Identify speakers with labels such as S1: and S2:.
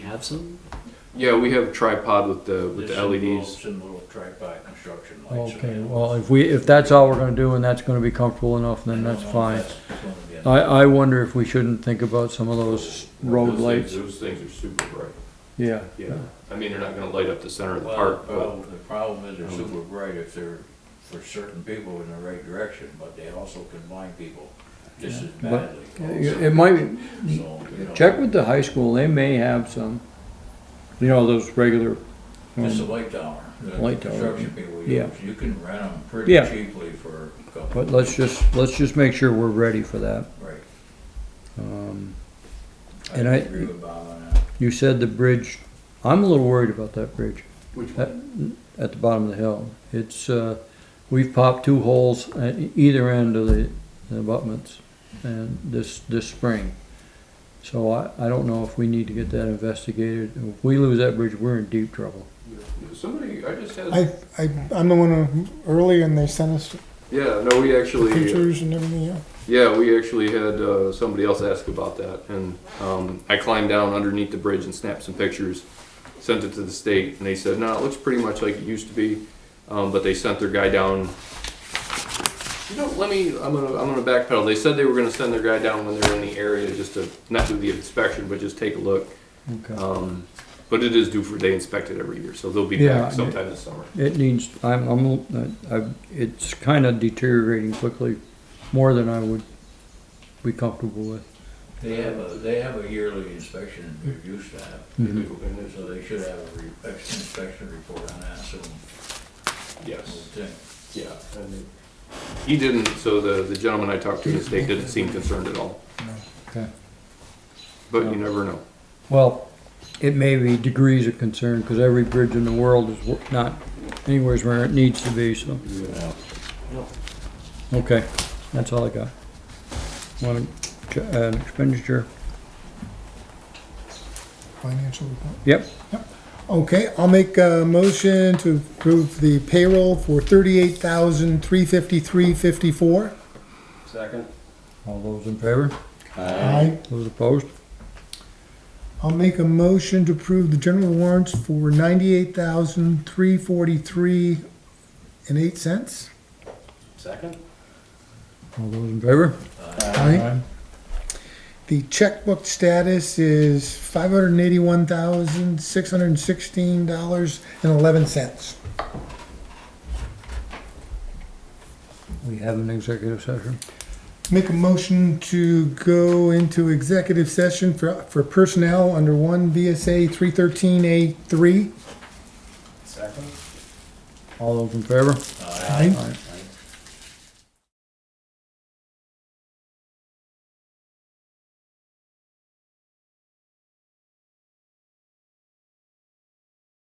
S1: have some?
S2: Yeah, we have tripod with the with the E
S3: There's some
S2: LEDs.
S3: little- Some little tripod construction lights.
S4: Okay,
S3: around.
S4: well, if we, if that's all we're gonna do and that's gonna be comfortable enough,
S3: I
S4: then
S3: don't
S4: that's
S3: know if
S4: fine.
S3: gonna be enough.
S4: I, I wonder if we shouldn't think about some of those road
S2: Those
S4: lights,
S2: Things, those things are super bright.
S4: yeah.
S2: Yeah, I mean they're not going to light up the center of the
S3: Well,
S2: park, but
S3: well, the problem is they're
S2: Um,
S3: super bright if they're for certain people in the right direction, but they also can blind people just as
S4: But-
S3: badly. also.
S4: It might,
S3: So, you know,
S4: check with the high school, they may have some, you know, those regular. um,
S3: Just a light tower. that
S4: Light tower,
S3: Construction people
S4: yeah.
S3: use, you can rent them pretty
S4: Yeah.
S3: cheaply for a couple,
S4: But let's just, let's just make sure we're ready for that.
S3: right?
S4: Um,
S3: I
S4: And I-
S3: agree with Bob on that.
S4: you said the bridge, I'm a little worried about that bridge
S2: which
S4: at, at the bottom of the hill. It's, uh, we've popped two holes at e-, either end of the the abutments and this, this spring. So I, I don't know if we need to get that investigated. If we lose that bridge, we're in deep trouble.
S2: somebody I just had.
S5: I, I, I'm the one who, early and they sent us
S2: yeah, no, we actually.
S5: pictures and everything, yeah.
S2: Yeah, we actually had uh, somebody else ask about that, and um, I climbed down underneath the bridge and snapped some pictures, sent it to the state, and they said, "No, it looks pretty much like it used to be," um, but they sent their guy down. You know, let me. I'm gonna. I'm gonna backpedal. They said they were gonna send their guy down when they're in the area, just to not do the inspection, but just take a look.
S4: Okay.
S2: Um, but it is due for they inspect it every year, so they'll be
S4: Yeah,
S2: back sometime this summer.
S4: It needs, I'm, I'm, I, it's kind of deteriorating quickly, more than I would be comfortable with.
S3: They have a, they have a yearly inspection and review staff.
S4: Mhm.
S3: So they should have a re- inspection report on that, so we'll
S2: Yes.
S3: think.
S2: Yeah. and it- He didn't. So the the gentleman I talked to in the state didn't seem concerned at all.
S4: Okay.
S2: But you never know.
S4: Well, it may be degrees of concern, because every bridge in the world is wo- not anywhere where it needs to be, so, okay, that's all I got. Want to, uh, an expenditure,
S5: Financial report.
S4: yep,
S5: Okay, I'll make a motion to approve the payroll for thirty-eight thousand, three fifty-three, fifty-four.
S2: Second.
S4: all those in favor,
S5: Aye.
S4: those opposed,
S5: I'll make a motion to approve the general warrants for ninety-eight thousand, three forty-three and eight cents.
S2: Second.
S4: all those in favor?
S5: Aye. The checkbook status is five hundred and eighty-one thousand, six hundred and sixteen dollars and eleven cents.
S4: We have an executive session,
S5: Make a motion to go into executive session for, for personnel under one VSA three thirteen A three.
S4: all those in favor?
S5: Aye.
S4: Aye.